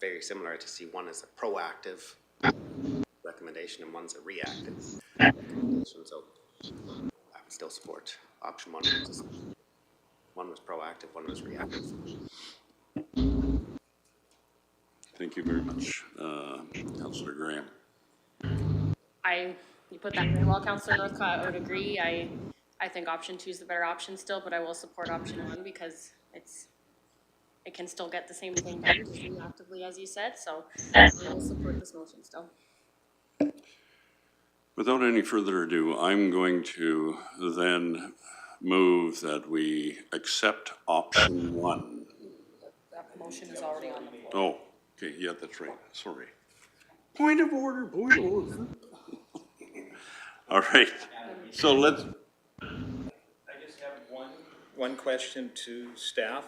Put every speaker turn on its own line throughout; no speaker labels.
very similar to see one is a proactive recommendation and one's a reactive. recommendation. So I would still support option one. One was proactive, one was reactive.
Thank you very much, uh, Councillor Graham.
I, you put that very well, Counselor Northcott, I would agree. I, I think option two is the better option still, but I will support option one because it's, it can still get the same thing done actively as you said, so I will support this motion still.
Without any further ado, I'm going to then move that we accept option one.
That motion is already on the floor.
Oh, okay, yeah, that's right, sorry. Point of order, point of order. All right, so let's,
I just have one, one question to staff.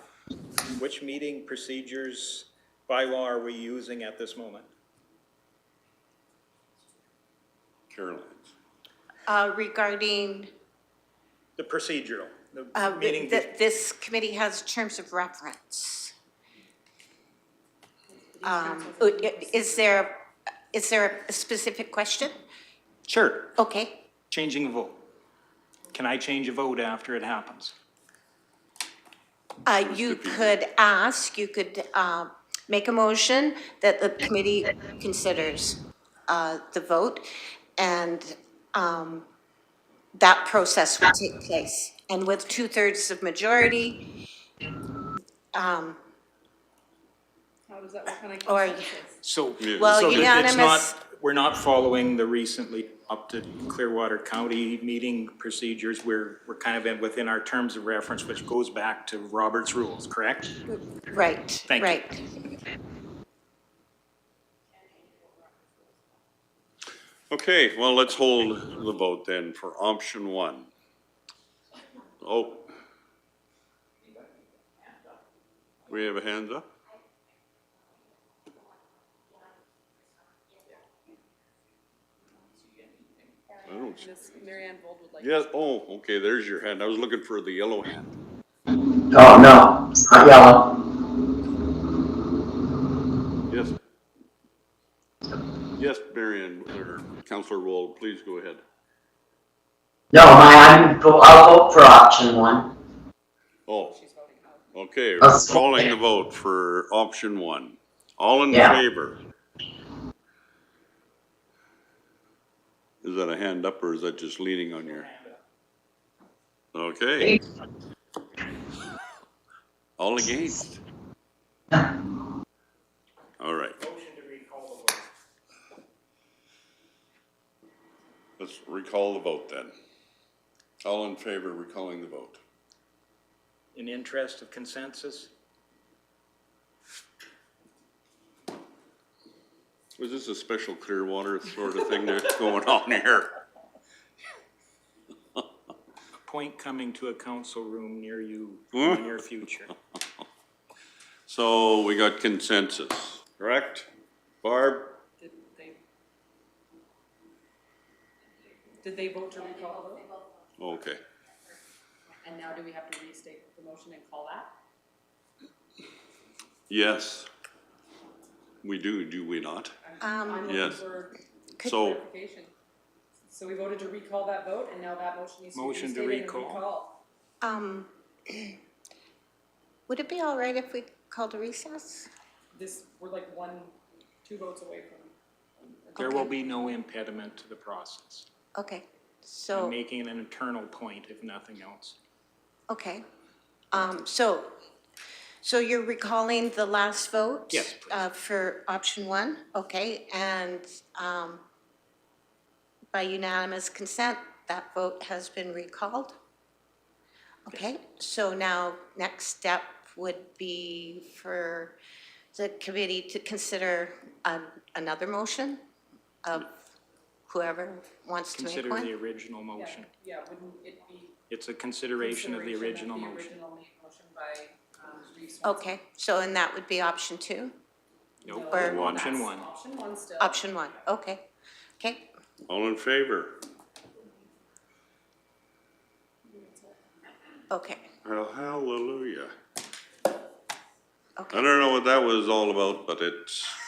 Which meeting procedures bylaw are we using at this moment?
Caroline's.
Uh, regarding,
The procedural, the
uh,
meeting,
that this committee has terms of reference. Um, is there, is there a specific question?
Sure,
Okay,
changing a vote. Can I change a vote after it happens?
uh, you could ask, you could, uh, make a motion that the committee considers, uh, the vote, and, um, that process will take place. And with two-thirds of majority, um,
How does that, what kind of
Or-
consensus?
So.
Well,
so that it's
unanimous-
not- We're not following the recently opted Clearwater County meeting procedures. We're, we're kind of in, within our terms of reference, which goes back to Robert's rules, correct?
right,
you.
right.
Okay, well, let's hold the vote then for option one. Oh. We have a hands up? I don't see.
Miss Mary Ann Vold would like.
Yes, oh, okay, there's your hand. I was looking for the yellow hand.
Oh, no, it's not yellow.
Yes. Yes, Marion, or Counselor Wall, please go ahead.
No, my, I'm, I'll vote for option one.
Oh. Okay,
I'll second.
calling the vote for option one. All in
Yeah.
favor? Is that a hand up or is that just leaning on your? Okay. All against? All right. Let's recall the vote then. All in favor recalling the vote?
In interest of consensus?
Was this a special Clearwater sort of thing that's going on here?
Point coming to a council room near you in the near future.
So we got consensus, correct? Barb?
Did they? Did they vote to recall the vote?
Okay.
And now do we have to restate the motion and call that?
Yes. We do, do we not?
Um,
I'm looking
Yes.
for
Oh.
So,
clarification. So we voted to recall that vote and now that motion needs to be
Motion to
restated and
recall.
recalled.
Um, would it be all right if we called a recess?
This, we're like one, two votes away from.
There will be no impediment to the process.
Okay,
I'm
so,
making an internal point, if nothing else.
okay. Um, so, so you're recalling the last vote?
Yes, please.
Uh, for option one, okay, and, um, by unanimous consent, that vote has been recalled? Okay, so now, next step would be for the committee to consider, um, another motion of whoever wants to make
Consider
one?
the original motion.
Yeah, wouldn't it be?
It's a consideration of the
consideration
original motion.
original motion by, um, Reeves.
Okay, so and that would be option two?
Nope,
Or-
option one.
Option one still.
Option one, okay. Okay,
all in favor?
okay,
Well, hallelujah.
Okay.
I don't know what that was all about, but it's